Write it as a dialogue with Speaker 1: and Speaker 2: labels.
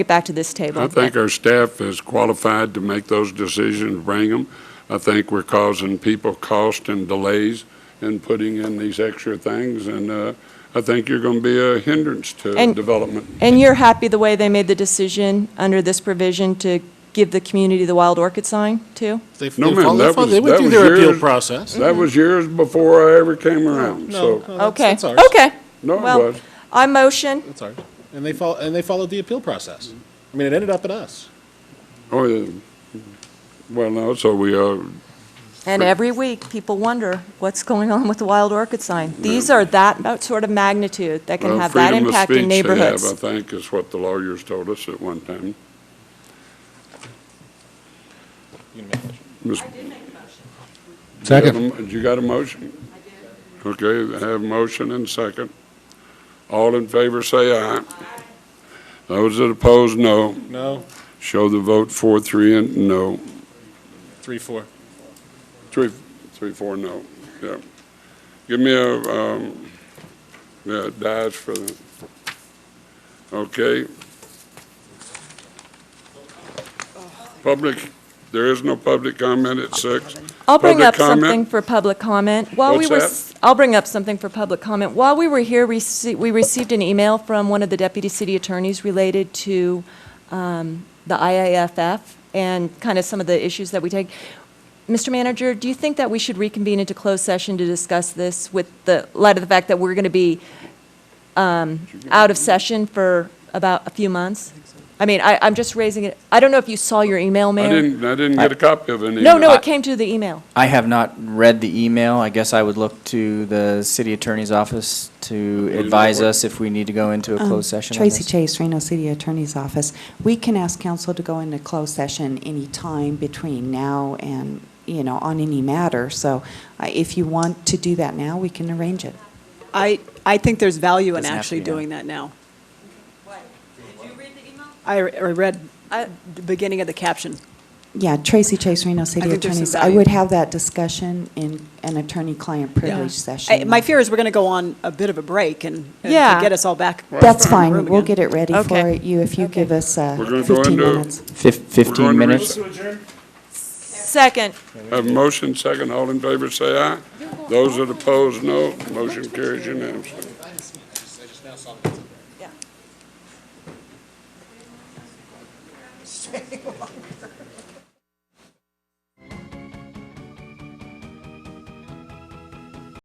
Speaker 1: get back to this table.
Speaker 2: I think our staff is qualified to make those decisions, bring them. I think we're causing people cost and delays in putting in these extra things, and uh, I think you're going to be a hindrance to
Speaker 1: And-
Speaker 2: development.
Speaker 1: And you're happy the way they made the decision under this provision to give the community the wild orchid sign, too?
Speaker 3: They,
Speaker 2: No,
Speaker 3: they
Speaker 2: ma'am,
Speaker 3: follow-
Speaker 2: that
Speaker 3: follow-
Speaker 2: was-
Speaker 3: they went
Speaker 2: that
Speaker 3: through
Speaker 2: was
Speaker 3: their appeal
Speaker 2: yours.
Speaker 3: process.
Speaker 2: That was years before I ever came around,
Speaker 3: No,
Speaker 2: so,
Speaker 3: no, that's-
Speaker 1: Okay,
Speaker 3: that's ours.
Speaker 1: okay.
Speaker 2: no, it
Speaker 1: Well,
Speaker 2: was.
Speaker 1: I motion,
Speaker 3: That's ours. And they follow, and they followed the appeal process. I mean, it ended up in us.
Speaker 2: Oh, yeah. Well, no, so we, uh,
Speaker 1: and every week, people wonder what's going on with the wild orchid sign. These are that mo- sort of magnitude that can
Speaker 2: well,
Speaker 1: have that
Speaker 2: freedom of
Speaker 1: impact in
Speaker 2: speech they have, I
Speaker 1: neighborhoods.
Speaker 2: think, is what the lawyers told us at one time. Ms. You got a mo- You got a motion? I did. Okay, I have a motion and second. All in favor, say aye. Those that oppose, no.
Speaker 3: No,
Speaker 2: Show the vote four, three, and no.
Speaker 3: three, four.
Speaker 2: Three, three, four, no. Yeah. Give me a, um, yeah, it dies for the, okay. Public, there is no public comment at six.
Speaker 1: I'll bring
Speaker 2: Public
Speaker 1: up
Speaker 2: comment?
Speaker 1: something for public comment. While we
Speaker 2: What's
Speaker 1: were,
Speaker 2: that?
Speaker 1: s- I'll bring up something for public comment. While we were here, we rece- we received an email from one of the deputy city attorneys related to um, the IAFF and kind of some of the issues that we take. Mr. Manager, do you think that we should reconvene into closed session to discuss this with the light of the fact that we're going to be um, out of session for about a few months? I mean, I, I'm just raising it. I don't know if you saw your email, Mayor.
Speaker 2: I didn't, I didn't get a copy of any.
Speaker 1: No, no, it came to the email.
Speaker 4: I have not read the email. I guess I would look to the city attorney's office to
Speaker 2: you know
Speaker 4: advise
Speaker 2: what?
Speaker 4: us if we need to go into a
Speaker 5: Um,
Speaker 4: closed session on
Speaker 5: Tracy
Speaker 4: this.
Speaker 5: Chase, Reno City Attorney's Office. We can ask council to go into closed session any time between now and, you know, on any matter. So uh, if you want to do that now, we can arrange it.
Speaker 6: I, I think there's value in
Speaker 4: Doesn't have to
Speaker 6: actually
Speaker 4: be now.
Speaker 6: doing that now.
Speaker 1: Did you read the email?
Speaker 6: I, I read
Speaker 1: I-
Speaker 6: the beginning of the caption.
Speaker 5: Yeah, Tracy Chase, Reno
Speaker 6: I
Speaker 5: City
Speaker 6: think there's some
Speaker 5: Attorney's. I
Speaker 6: value.
Speaker 5: would have that discussion in an attorney-client
Speaker 6: Yeah.
Speaker 5: privilege
Speaker 6: I-
Speaker 5: session.
Speaker 6: My fear is we're going to go on a bit of a break and, and
Speaker 1: Yeah.
Speaker 6: to get us all back.
Speaker 5: That's
Speaker 6: in the room
Speaker 5: fine. We'll
Speaker 6: again.
Speaker 5: get it ready for
Speaker 1: Okay.
Speaker 5: you if you
Speaker 1: Okay.
Speaker 5: give us uh,
Speaker 2: We're gonna go
Speaker 5: 15
Speaker 2: into-
Speaker 5: minutes.
Speaker 4: Fif-
Speaker 2: going
Speaker 4: Fifteen
Speaker 2: to
Speaker 4: minutes?
Speaker 1: Second.
Speaker 2: Have a motion, second, all in favor, say aye. Those that oppose, no. Motion carries unanimously.